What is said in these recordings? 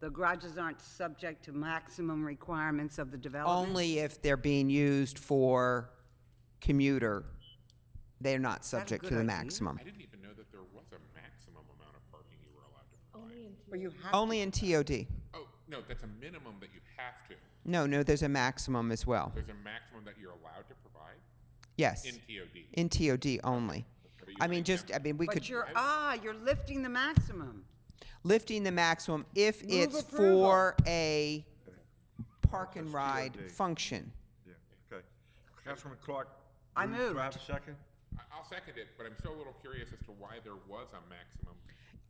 the garages aren't subject to maximum requirements of the development? Only if they're being used for commuter, they're not a subject good to the idea? maximum. I didn't even know that there was a maximum amount of parking you were allowed to provide. Or you have, Only in TOD. Oh, no, that's a minimum that you have to. No, no, there's a maximum as well. There's a maximum that you're allowed to provide Yes, in TOD. in TOD only. But you I would mean, just, I mean, we could, but you're, ah, you're lifting the maximum. lifting the maximum if Move it's approval. for a park and ride TOD. function. Yeah, okay. Councilman Clark? I moved. Do I have a moved. second? I- I'll second it, but I'm still a little curious as to why there was a maximum.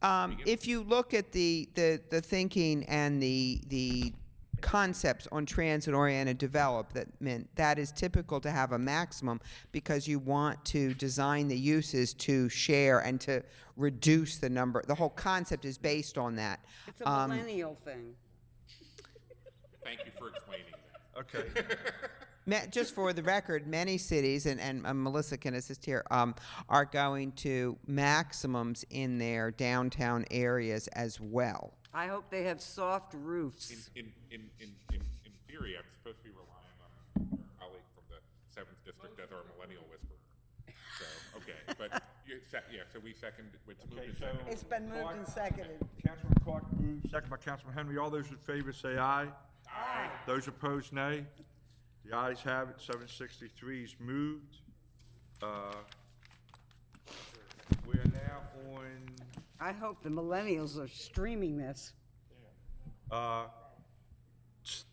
Um, if you look at the, the, the thinking and the, the concepts on transit-oriented development, that is typical to have a maximum because you want to design the uses to share and to reduce the number. The whole concept is based on that. Um, It's a Um, millennial thing. Thank you for explaining that. Okay. Ma- just for the record, many cities, and, and uh, Melissa can assist here, um, are going to maximums in their downtown areas as well. I hope they have soft roofs. In, in, in, in, in theory, I'm supposed to be relying on our colleague from the seventh district as our millennial whisperer. So, okay, but you, se- yeah, so we second, it's moved Okay, and so seconded. It's been moved and seconded. Councilman Clark moved, second by Councilman Henry. All those in favor say aye. Aye. Those opposed, nay. The ayes have it, seven sixty-three is moved. Uh, We are now on I hope the millennials are streaming this. Uh,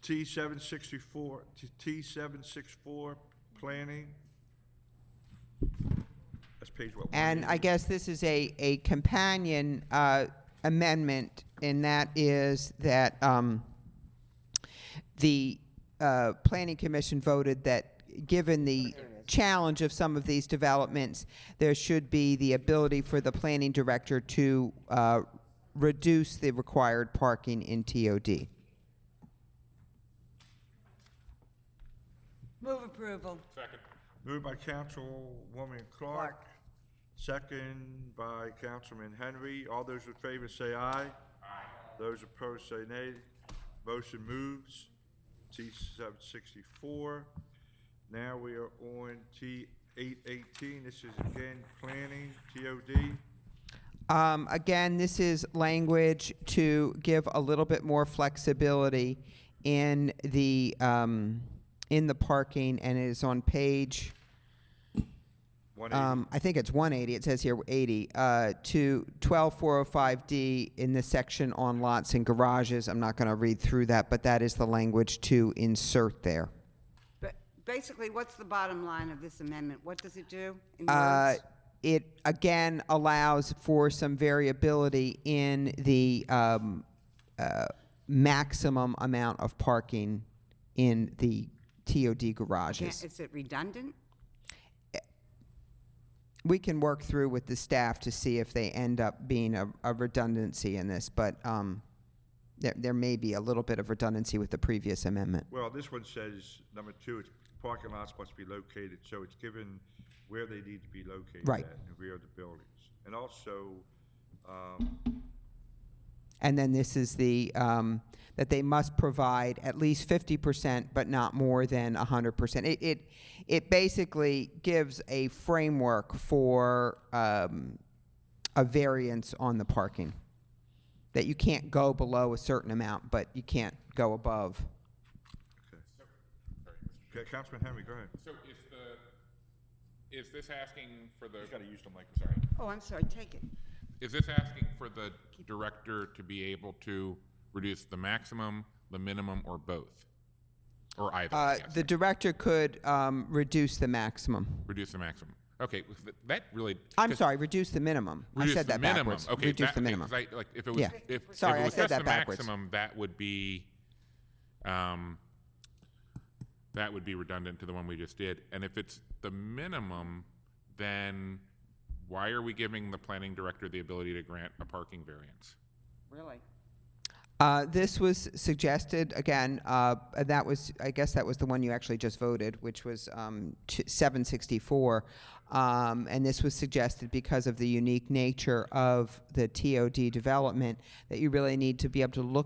T seven sixty-four, T seven six four, planning. That's page what? And I guess this is a, a companion uh, amendment, and that is that um, the uh, Planning Commission voted that, given the challenge of some of these developments, there should be the ability for the planning director to uh, reduce the required parking in TOD. Move approval. Second, Moved by Councilwoman Clark, Clark. second by Councilman Henry. All those in favor say aye. Aye. Those opposed say nay. Motion moves. T seven sixty-four. Now we are on T eight eighteen. This is again planning, TOD. Um, again, this is language to give a little bit more flexibility in the um, in the parking, and it is on page. One eighty. Um, I think it's 180. It says here 80 uh, to 12405D in the section on lots and garages. I'm not going to read through that, but that is the language to insert there. But basically, what's the bottom line of this amendment? What does it do in Uh, words? It, again, allows for some variability in the um, uh, maximum amount of parking in the TOD Can't- garages. Is it redundant? We can work through with the staff to see if they end up being a a redundancy in this, but um, there there may be a little bit of redundancy with the previous amendment. Well, this one says, number two, it's parking lots must be located, so it's given where they need to be located Right. at, in the rear of the buildings. And also, um, And then this is the, um, that they must provide at least fifty percent, but not more than hundred percent. It, it, it basically gives a framework for, um, a variance on the parking. That you can't go below a certain amount, but you can't go above. okay, Councilman Henry, go ahead. so is the, is this asking for the? use the mic. Sorry. Oh, I'm sorry, take it. Is this asking for the director to be able to reduce the maximum, the minimum, or both? Or either, I Uh, guess. the director could, um, reduce the maximum. Reduce the maximum. Okay, with th- that really. I'm 'cause sorry, reduce the minimum. I reduce said the that minimum. backwards. Okay, Reduce that- the okay, minimum. 'cause I- Like, if it was, Yeah. if- if it Sorry, I was said just that the backwards. maximum, that would be, um, that would be redundant to the one we just did. And if it's the minimum, then why are we giving the planning director the ability to grant a parking variance? Really? Uh, this was suggested again. Uh, and that was, I guess, that was the one you actually just voted, which was um, t- 764. Um, and this was suggested because of the unique nature of the TOD development that you really need to be able to look